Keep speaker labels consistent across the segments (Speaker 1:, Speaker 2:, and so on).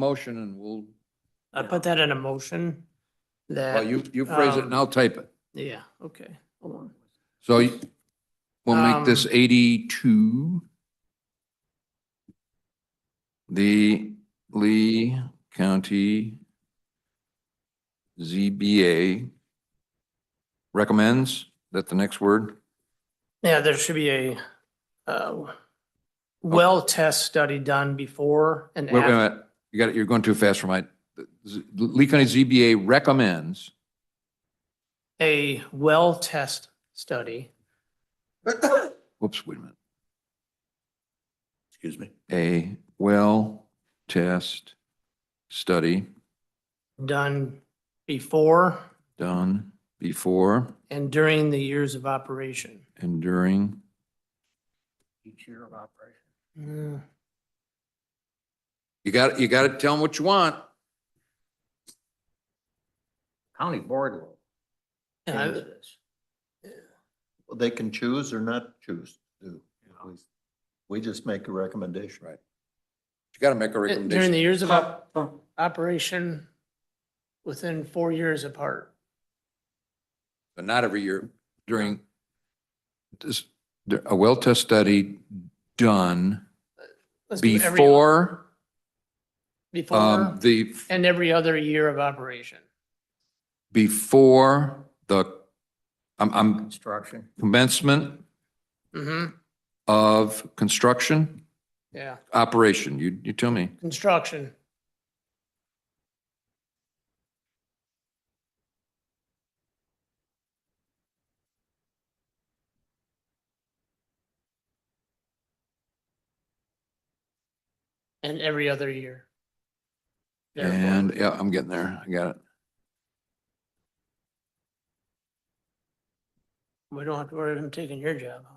Speaker 1: motion and we'll,
Speaker 2: I put that in a motion
Speaker 1: well,
Speaker 2: that, um,
Speaker 1: you, you phrase it and I'll type it.
Speaker 2: yeah, okay, hold on.
Speaker 1: So you- we'll make this
Speaker 2: Um,
Speaker 1: eighty-two. The Lee County ZBA recommends, that the next word?
Speaker 2: Yeah, there should be a, uh, well test study done before and
Speaker 1: Wait, wait a
Speaker 2: after.
Speaker 1: minute, you got it, you're going too fast for my, Z- Lee County ZBA recommends,
Speaker 2: A well test study,
Speaker 1: whoops, wait a minute,
Speaker 3: Excuse me.
Speaker 1: a well test study
Speaker 2: done before
Speaker 1: done before
Speaker 2: and during the years of operation.
Speaker 1: and during
Speaker 3: Each year of operation.
Speaker 2: Uh,
Speaker 1: You got, you got to tell them what you want.
Speaker 3: County board will change
Speaker 2: I-
Speaker 3: this. Well, They can choose or not choose to. We just make a recommendation.
Speaker 1: Right. You got to make a
Speaker 2: Uh, During the
Speaker 1: recommendation.
Speaker 2: years of op- operation, within four years apart.
Speaker 1: But not every year during this, a well test study done
Speaker 2: Let's do every-
Speaker 1: before,
Speaker 2: Before
Speaker 1: um, the,
Speaker 2: and every other year of operation.
Speaker 1: before the, I'm, I'm
Speaker 3: Construction.
Speaker 1: commencement
Speaker 2: hmm
Speaker 1: of construction,
Speaker 2: yeah,
Speaker 1: operation. You, you tell me.
Speaker 2: construction. And every other year. Therefore,
Speaker 1: And yeah, I'm getting there. I got it.
Speaker 2: We don't have to worry about him taking your job. huh?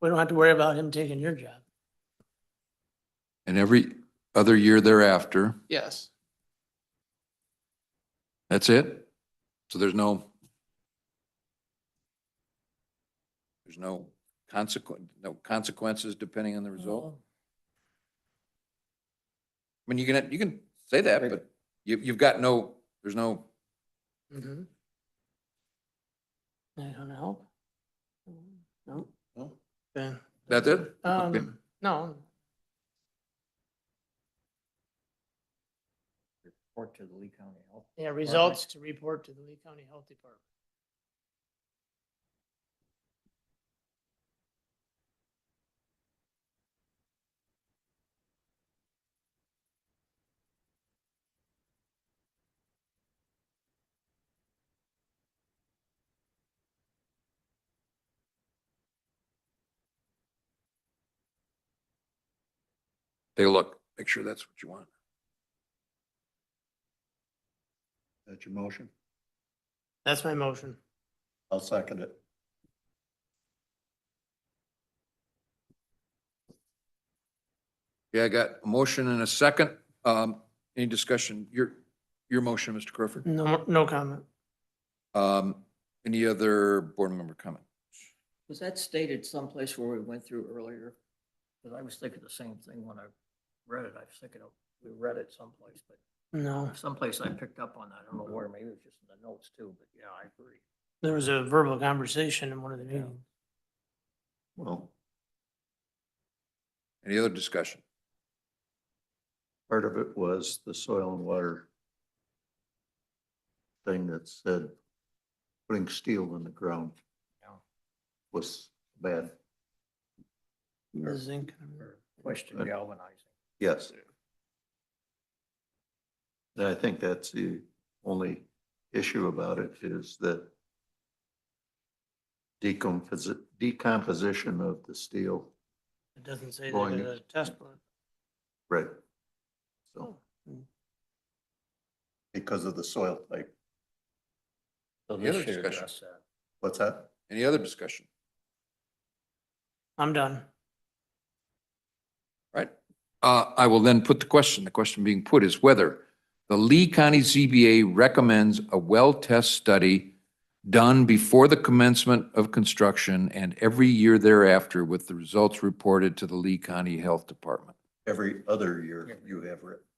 Speaker 2: We don't have to worry about him taking your job.
Speaker 1: And every other year thereafter,
Speaker 2: Yes.
Speaker 1: that's it? So there's no, there's no consequence, no consequences depending on the result? I mean, you can, you can say that, but you, you've got no, there's no,
Speaker 2: Mhm. That gonna help? No?
Speaker 3: No.
Speaker 2: Okay.
Speaker 1: that's it? Okay.
Speaker 2: Um, no,
Speaker 3: Report to the Lee County Health.
Speaker 2: yeah, results to report to the Lee County Health Department.
Speaker 1: Take a look, make sure that's what you want.
Speaker 3: That's your motion?
Speaker 2: That's my motion.
Speaker 3: I'll second it.
Speaker 1: Yeah, I got a motion and a second. Um, any discussion? Your, your motion, Mr. Crawford?
Speaker 2: No, no comment.
Speaker 1: Um, any other board member comment?
Speaker 4: Was that stated someplace where we went through earlier? Because I was thinking the same thing when I read it. I was thinking of, we read it someplace, but
Speaker 2: No,
Speaker 4: someplace I picked up on that. I don't know where, maybe it was just in the notes too, but yeah, I agree.
Speaker 2: there was a verbal conversation in one of the meetings.
Speaker 3: Well,
Speaker 1: Any other discussion?
Speaker 3: part of it was the soil and water thing that said putting steel in the ground
Speaker 4: Yeah.
Speaker 3: was bad.
Speaker 2: The zinc.
Speaker 4: Or Question
Speaker 3: But-
Speaker 4: galvanizing.
Speaker 3: Yes. And I think that's the only issue about it is that decomposi- decomposition of the steel.
Speaker 2: It doesn't say that
Speaker 3: Going-
Speaker 2: it's a test one.
Speaker 3: Right. So,
Speaker 2: Hmm.
Speaker 3: because of the soil type.
Speaker 4: So
Speaker 1: The other
Speaker 4: this should
Speaker 1: discussion.
Speaker 4: address that.
Speaker 3: What's that?
Speaker 1: Any other discussion?
Speaker 2: I'm done.
Speaker 1: Right. Uh, I will then put the question, the question being put is whether the Lee County ZBA recommends a well test study done before the commencement of construction and every year thereafter with the results reported to the Lee County Health Department.
Speaker 3: Every other year you have written.